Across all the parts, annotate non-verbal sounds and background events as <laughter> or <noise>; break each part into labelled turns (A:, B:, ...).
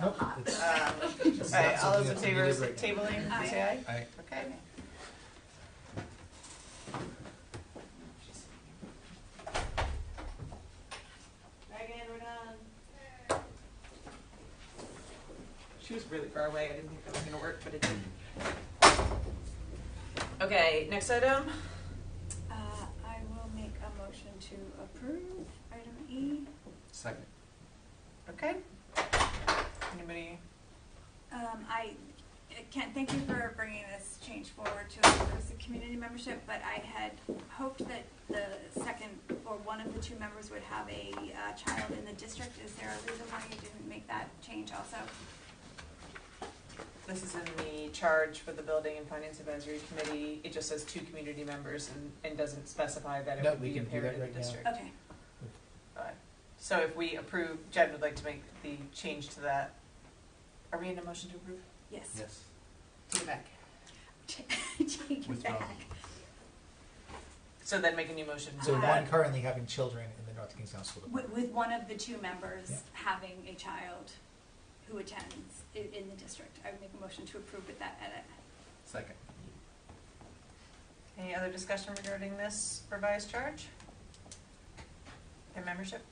A: Nope. it's-
B: Uh,
A: it's
B: All right,
A: not
B: all
A: something
B: those in
A: that's on the
B: favor of
A: agenda right now.
B: tabling, say aye.
A: Aye.
B: Okay.
C: Megan, we're done.
B: She was really far away, I didn't think that was gonna work, but it did. Okay, next item,
C: Uh, I will make a motion to approve item E.
A: Second.
B: okay. Anybody,
C: Um, I, I can't, thank you for bringing this change forward to us as a community membership, but I had hoped that the second or one of the two members would have a, uh, child in the district. Is there a reason why you didn't make that change also?
B: this is in the charge for the Building and Finance Advisory Committee, it just says two community members and, and doesn't specify that it
A: No,
B: would
A: we
B: be
A: can
B: a
A: do that
B: parent in the
A: right now.
B: district.
C: Okay,
B: So if we approve, Jen would like to make the change to that, are we in a motion to approve?
C: yes.
A: Yes.
B: Take it back.
C: <laughs> Take it
A: Withdraw.
C: back.
B: So then make a new motion to
A: So one
B: add,
A: currently having children in the North Kingstown School
C: With,
A: Department.
C: with one of the two members
A: Yeah.
C: having a child who attends i- in the district. I would make a motion to approve with that edit.
A: Second.
B: any other discussion regarding this revised charge? Their membership?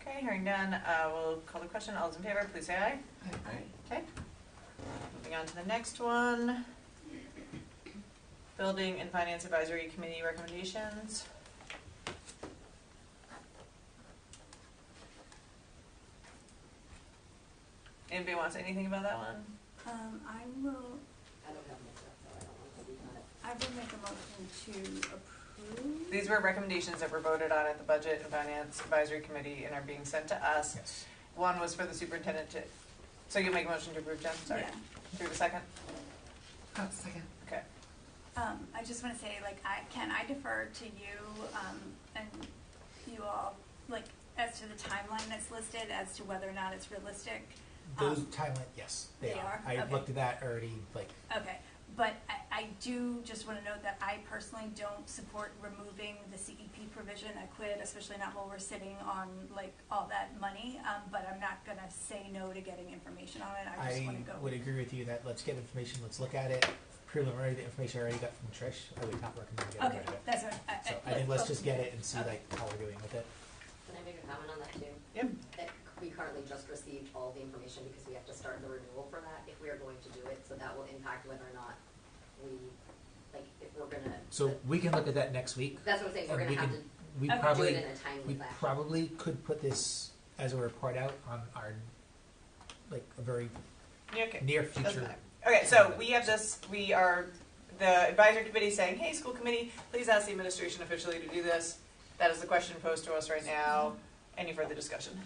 B: Okay, hearing none, uh, we'll call the question, all those in favor, please say aye. Okay. Moving on to the next one. Building and Finance Advisory Committee recommendations. Anybody wants anything about that one?
C: Um, I will, I will make a motion to approve.
B: These were recommendations that were voted on at the Budget and Finance Advisory Committee and are being sent to us.
A: Yes.
B: One was for the superintendent to, so you'll make a motion to approve, Jen, sorry.
C: Yeah.
B: Do you have a second?
D: second.
B: Okay.
C: Um, I just wanna say, like, I, can I defer to you, um, and you all, like, as to the timeline that's listed, as to whether or not it's realistic?
A: Those
C: Um,
A: timeline, yes, they
C: they
A: are.
C: are?
A: I
C: Okay.
A: looked at that already, like,
C: Okay, but I, I do just wanna note that I personally don't support removing the CEP provision, I quit, especially not while we're sitting on, like, all that money, um, but I'm not gonna say no to getting information on it, I just
A: I
C: wanna go.
A: would agree with you that let's get information, let's look at it. Preliminary, the information I already got from Trish, I would not recommend getting
C: Okay,
A: rid of it.
C: that's what, I, I.
A: So I think let's just get it and see
C: Okay.
A: like how we're doing with it.
D: Can I make a comment on that too?
B: Yep.
D: That we currently just received all the information because we have to start the renewal for that if we are going to do it, so that will impact whether or not we, like, if we're gonna.
A: So we can look at that next week.
D: That's what I'm saying, we're
A: and we
D: gonna have
A: can-
D: to
A: We
C: Okay.
D: do it
A: probably,
D: in a timely
A: we
D: fashion.
A: probably could put this as a report out on our, like, a very
B: You okay?
A: near
B: Doesn't
A: future.
B: matter. Okay, so we have this, we are, the advisory committee saying, hey, school committee, please ask the administration officially to do this. That is the question posed to us right now. Any further discussion?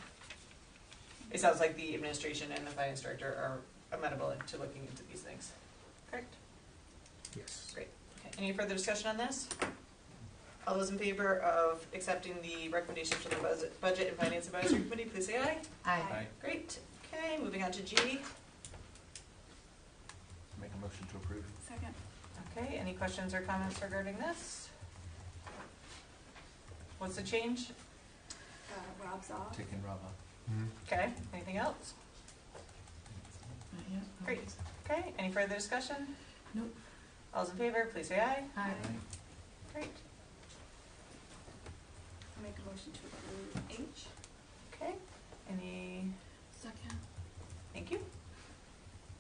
B: It sounds like the administration and the finance director are amenable to looking into these things. Correct?
A: Yes.
B: Okay, any further discussion on this? All those in favor of accepting the recommendation for the Buzz- Budget and Finance Advisory Committee, please say aye.
C: Aye.
B: Great, okay, moving on to G.
E: Make a motion to approve.
C: Second,
B: Okay, any questions or comments regarding this? What's the change?
C: uh, Rob's off.
E: Taking Rob off.
B: Okay, anything else? Great, okay, any further discussion?
D: Nope.
B: All's in favor, please say aye.
C: Aye.
B: Great,
C: I'll make a motion to approve H.
B: okay, any,
D: Second.
B: thank you.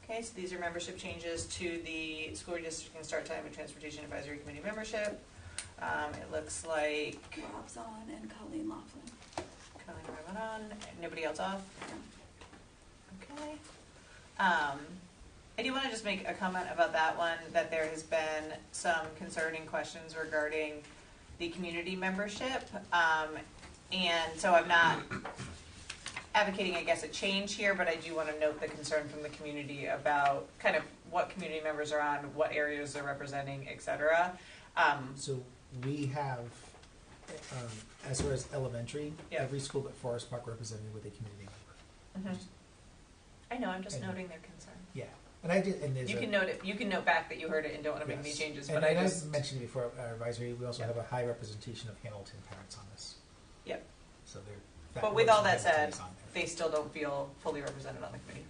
B: Okay, so these are membership changes to the school district and start time and transportation advisory committee membership. Um, it looks like
C: Rob's on and Colleen Laughlin.
B: Colleen Rowan on, nobody else off? Okay. Um, I do want to just make a comment about that one, that there has been some concerning questions regarding the community membership. Um, and so I'm not advocating, I guess, a change here, but I do want to note the concern from the community about kind of what community members are on, what areas they're representing, et cetera. Um,
A: So we have, um, as far as elementary,
B: Yeah.
A: every school but Forest Park represented with a community member. Mm-hmm.
B: mhm. I know, I'm just
A: And-
B: noting their concern.
A: Yeah, and I did, and there's
B: You
A: a-
B: can note it, you can note back that you heard it and don't want to make any
A: Yes.
B: changes,
A: And
B: but
A: I
B: I
A: know
B: just.
A: I've mentioned it before, our advisory, we also
B: Yeah.
A: have a high representation of Hamilton parents on this.
B: Yep.
A: So they're
B: But with all that
A: representation
B: said,
A: is on there.
B: they still don't feel fully represented on the committee.